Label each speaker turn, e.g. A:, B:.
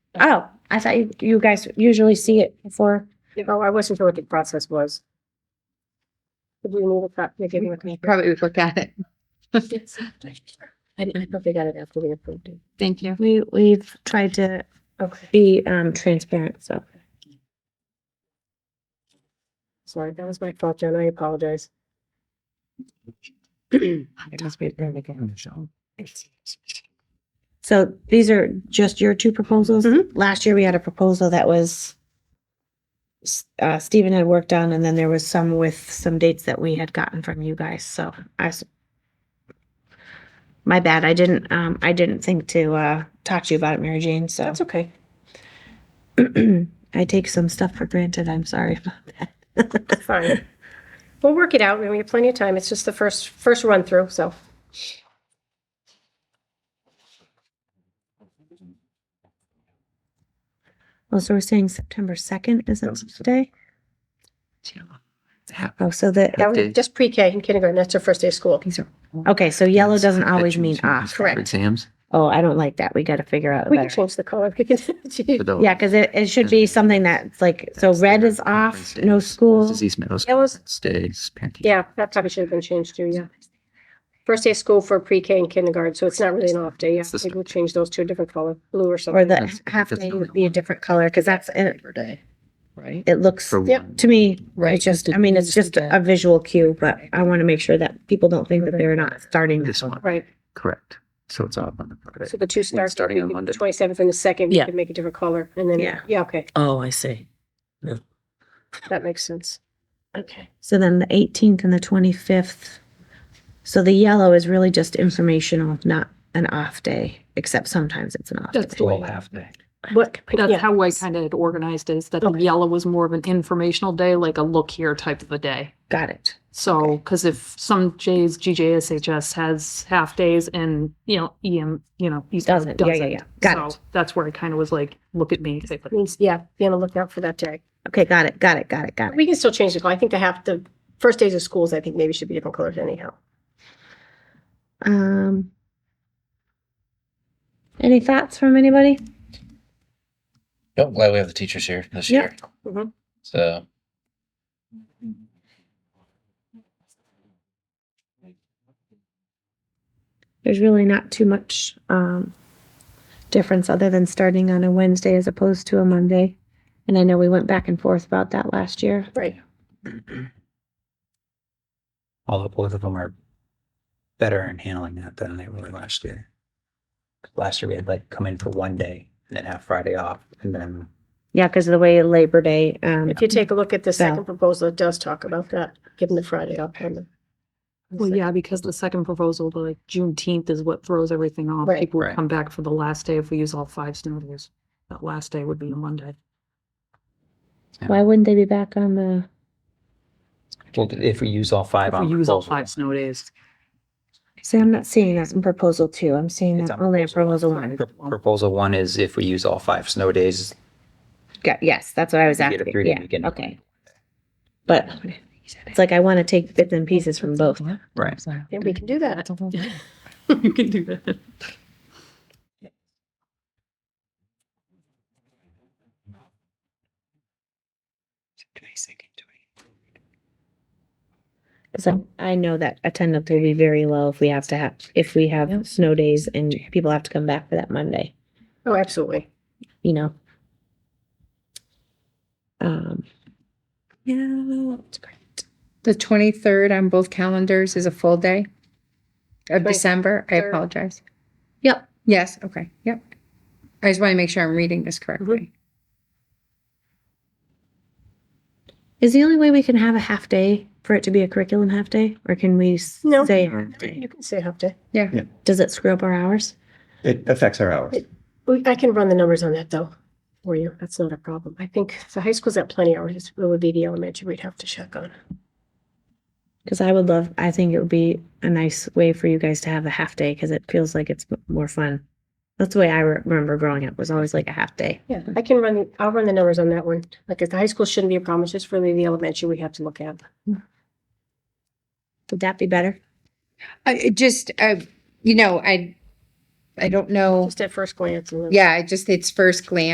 A: Oh, I thought you, you guys usually see it before.
B: Oh, I wasn't sure what the process was. Did you need a copy to give with me?
C: Probably would look at it.
B: I didn't, I probably got it after we approved it.
C: Thank you.
A: We, we've tried to
B: Okay.
A: be, um, transparent, so.
B: Sorry, that was my fault, Jen. I apologize.
A: So these are just your two proposals?
B: Mm-hmm.
A: Last year, we had a proposal that was s- uh, Stephen had worked on, and then there was some with some dates that we had gotten from you guys, so I s- my bad, I didn't, um, I didn't think to, uh, talk to you about it, Mary Jane, so
B: That's okay.
A: I take some stuff for granted, I'm sorry about that.
B: Fine. We'll work it out. and We have plenty of time. It's just the first, first run through, so.
A: Well, Oh, so we're saying September second, is that today? Oh, so the,
B: That was
D: Okay.
B: just pre-K and kindergarten. That's their first day of school.
C: These are
A: okay, so yellow doesn't always mean off.
B: Correct.
D: Exams.
A: Oh, I don't like that, we gotta figure out a
B: We can
A: better.
B: change the color. We can.
D: for those.
A: Yeah, because it, it should be something that's like, so
D: That's
A: red
D: their
A: is off,
D: conference
A: no
D: days.
A: school.
D: This is East Meadow.
B: Yellow's-
D: Stays. parenting.
B: Yeah, that probably should have been changed too, yeah. First day of school for pre-K and kindergarten, so it's not really an off day, yeah.
D: It's the
B: Maybe we'll change those to a different color, blue or
A: Or
B: something.
A: the
D: That's-
A: half
D: that's
A: day
D: the
A: would be a different color, because that's, it,
E: Labor Day, right?
A: it looks,
D: For
B: Yep.
D: one.
A: to me,
E: Right.
A: it's just, I mean, it's just a visual cue, but I want to make sure that people don't think that they're not starting
D: This
A: this one.
D: one.
B: Right,
D: Correct. So it's off on the
B: so
D: Friday.
B: the two start.
D: starting on Monday.
B: Twenty-seventh and the second, we
E: Yeah.
B: can make a different color, and then,
A: Yeah.
B: yeah, okay,
E: Oh, I see.
B: that makes sense.
A: Okay. So then the eighteenth and the twenty-fifth. So the yellow is really just informational, not an off day, except sometimes it's an off
F: That's the
A: day.
F: whole half day.
B: What?
F: That's
B: yeah.
F: how I kind of organized is that the
B: Okay.
F: yellow was more of an informational day, like a look here type of a day.
A: Got it.
F: So, because if some J's, GJSHS has half days and, you know, EM, you know, East Meadow
A: Doesn't. Yeah, yeah, yeah. Got
F: So That's where I kind of was like, look at me. type of-
B: Means, yeah, be on the lookout for that day.
A: Okay, got it, got it, got it, got it.
B: We can still change the color, I think the half, the first days of schools, I think maybe should be different colors anyhow.
A: Um. Any thoughts from anybody?
G: Yep, I'm Oh, glad we have the teachers here this
A: Yeah.
G: year.
B: Mhm.
G: So.
A: There's really not too much um difference other than starting on a Wednesday as opposed to a Monday. And I know we went back and forth about that last year.
B: Right,
H: although both of them are better in handling that than they were last year. Last year we had like come in for one day and then have Friday off and then
A: Yeah, because of the way Labor Day, um,
B: if you take a look at the
A: So-
B: second proposal, it does talk about that, giving the Friday off. on the-
F: Well, yeah, because the second proposal, the, like Juneteenth is what throws everything off.
B: Right.
F: People would
D: Right.
F: come back for the last day if we use all five snow days. That last day would be a Monday.
A: why wouldn't they be back on the?
H: well, if we use all five
F: If we
H: on
F: use all
H: proposal,
F: five snow days.
A: See, I'm not seeing that in proposal two. I'm seeing
H: It's
A: that
H: on
A: only in proposal one.
H: Pro- Proposal one is if we use all five snow days,
A: Got- Yes, that's what I was
H: You get a
A: asking.
H: three-day
A: Yeah,
H: weekend.
A: okay. But it's like I want to take bits and pieces from both.
H: right?
B: Yeah, we can do that.
F: You can do that.
A: Because I, I know that attendance will be very low if we have to have, if we have snow days and people have to come back for that Monday,
B: Oh, absolutely.
A: you know? Um, yeah, that's great.
C: The twenty-third on both calendars is a full day of
B: Right.
C: December. I
B: Third.
C: apologize.
A: Yep.
C: Yes, okay, yep. I just want to make sure I'm reading this
A: Mm-hmm.
C: correctly.
A: Is the only way we can have a half day for it to be a curriculum half day? Or can we s-
B: No.
A: say half day?
B: You can say half day.
A: Does it screw up our hours?
I: It affects our hours.
B: We, I can run the numbers on that though, for you. That's not a problem. I think the high school's at plenty hours. It's- It would be the elementary we'd have to check on.
A: Because I would love, I think it would be a nice way for you guys to have a half day because it feels like it's m- more fun. That's the way I re- remember growing up was always like a half day.
B: Yeah, I can run, I'll run the numbers on that one. Like, if the high school shouldn't be a problem. It's just really the elementary we have to look at.
A: Would that be better?
C: I, it just, I, you know, I, I don't know.
B: Just at first glance. and then-
C: Yeah, I just, it's first glance.